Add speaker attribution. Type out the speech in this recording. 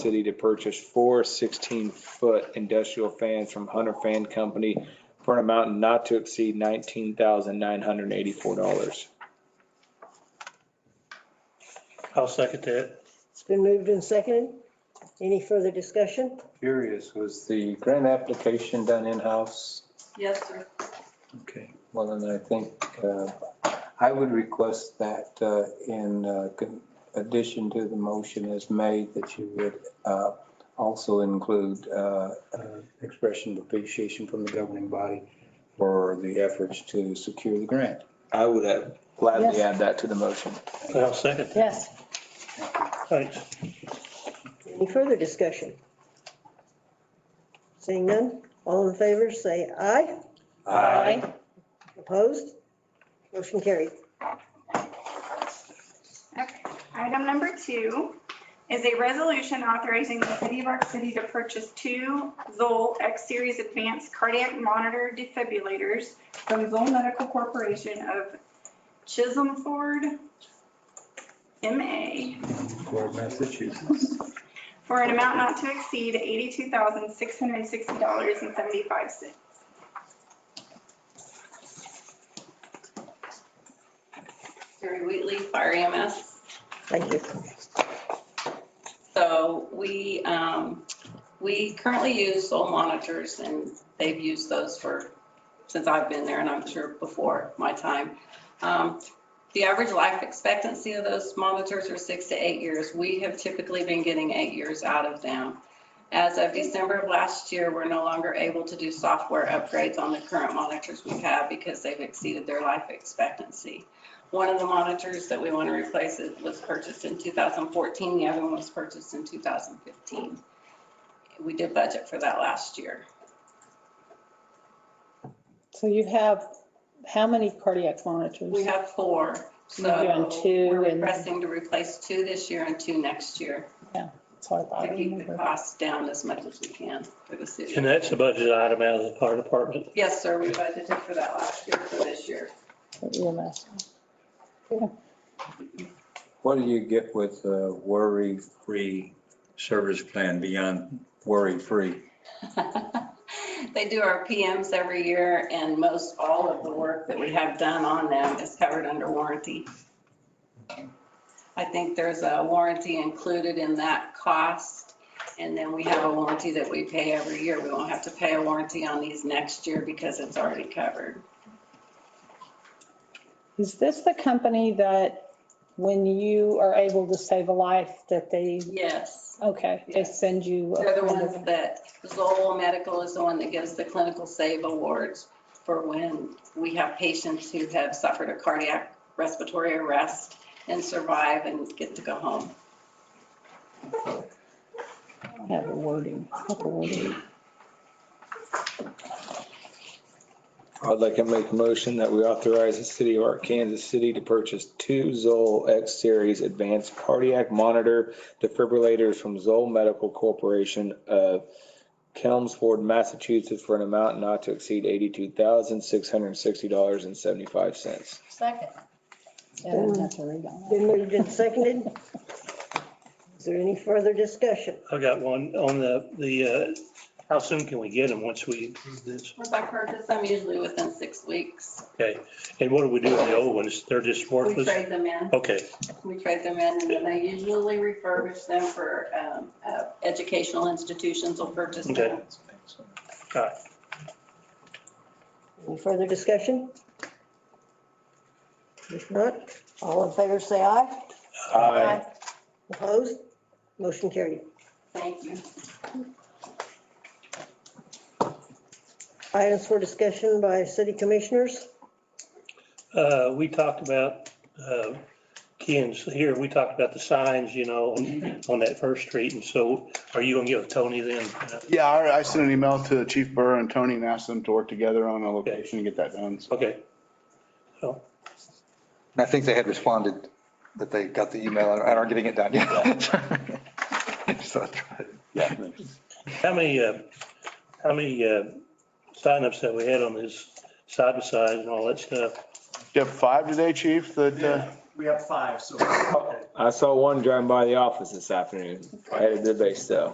Speaker 1: city to purchase four 16-foot industrial fans from Hunter Fan Company for an amount not to exceed $19,984.
Speaker 2: I'll second that.
Speaker 3: It's been moved and seconded. Any further discussion?
Speaker 4: Curious, was the grant application done in-house?
Speaker 5: Yes, sir.
Speaker 4: Okay. Well, then I think uh, I would request that uh, in uh, con- addition to the motion as made, that you would uh, also include uh, uh, expression of appreciation from the governing body for the efforts to secure the grant.
Speaker 1: I would have
Speaker 3: Yes.
Speaker 1: gladly add that to the motion.
Speaker 2: I'll second.
Speaker 3: Yes.
Speaker 2: Thanks.
Speaker 3: Any further discussion? Seeing none, all in favor, say aye. Opposed? Motion carried.
Speaker 6: Okay. Item number two is a resolution authorizing the city of Arc City to purchase two Zoll X-Series Advanced Cardiac Monitor Defibrillators from Zoll Medical Corporation of Chisholm Ford, MA,
Speaker 4: For Massachusetts.
Speaker 6: for an amount not to exceed $82,660.75.
Speaker 5: Terry Wheatley, Fire E EMS.
Speaker 3: Thank you.
Speaker 5: So we, um, we currently use Soul Monitors and they've used those for, since I've been there and I'm sure before my time. Um, The average life expectancy of those monitors are six to eight years. We have typically been getting eight years out of them. As of December of last year, we're no longer able to do software upgrades on the current monitors we have because they've exceeded their life expectancy. One of the monitors that we want to replace it was purchased in 2014, the other one was purchased in 2015. We did budget for that last year.
Speaker 7: So you have, how many cardiac monitors?
Speaker 5: We have four,
Speaker 7: You're
Speaker 5: so
Speaker 7: doing two
Speaker 5: we're
Speaker 7: and-
Speaker 5: requesting to replace two this year and two next year
Speaker 7: That's what I thought. I
Speaker 5: to keep the
Speaker 7: remember.
Speaker 5: costs down as much as we can for the
Speaker 2: And
Speaker 5: city.
Speaker 2: that's a budget item out of the fire department.
Speaker 5: Yes, sir, we budgeted for that last year for this year.
Speaker 7: EMS.
Speaker 4: What do you get with uh worry-free service plan beyond worry-free?
Speaker 5: They do our PMs every year and most all of the work that we have done on them is covered under warranty. I think there's a warranty included in that cost. And then we have a warranty that we pay every year. We won't have to pay a warranty on these next year because it's already covered.
Speaker 7: Is this the company that when you are able to save a life that they,
Speaker 5: Yes.
Speaker 7: okay, they
Speaker 5: Yeah.
Speaker 7: send you? a
Speaker 5: They're the
Speaker 7: kind of-
Speaker 5: ones that, Zoll Medical is the one that gives the clinical save awards for when we have patients who have suffered a cardiac respiratory arrest and survive and get to go home.
Speaker 7: I Have the wording, I have the wording.
Speaker 1: I'd like to make a motion that we authorize the city of Arkansas City to purchase two Zoll X-Series Advanced Cardiac Monitor defibrillators from Zoll Medical Corporation of Kelmsford, Massachusetts for an amount not to exceed $82,660.75.
Speaker 5: Second.
Speaker 7: Yeah, I didn't have to read all that.
Speaker 3: Been moved and seconded. Is there any further discussion?
Speaker 2: I got one on the, the, uh, how soon can we get them once we do this?
Speaker 5: Once I purchase them, usually within six weeks,
Speaker 2: Okay. And what do we do with the old ones? They're just
Speaker 5: we
Speaker 2: worthless?
Speaker 5: trade them in,
Speaker 2: Okay,
Speaker 5: we trade them in, and then they usually refurbish them for, um, uh, educational institutions will purchase them.
Speaker 2: Okay. all right.
Speaker 3: Any further discussion? If not, all in favor, say aye.
Speaker 1: Aye.
Speaker 3: Opposed? Motion carried.
Speaker 5: Thank you.
Speaker 3: Items for discussion by city commissioners.
Speaker 2: Uh, we talked about, uh, Ken's here, we talked about the signs, you know, on on that first street. And so are you gonna get with Tony then?
Speaker 8: Yeah, I I sent an email to Chief Burr and Tony and asked them to work together on a location and get that done. So
Speaker 2: Okay.
Speaker 9: And I think they had responded that they got the email and aren't getting it done yet. So, yeah.
Speaker 2: How many, uh, how many, uh, signups have we had on this side by side and all that stuff?
Speaker 8: You have five today, Chief, that, uh,
Speaker 10: We have five, so.
Speaker 1: I saw one driving by the office this afternoon, I had a debate, so.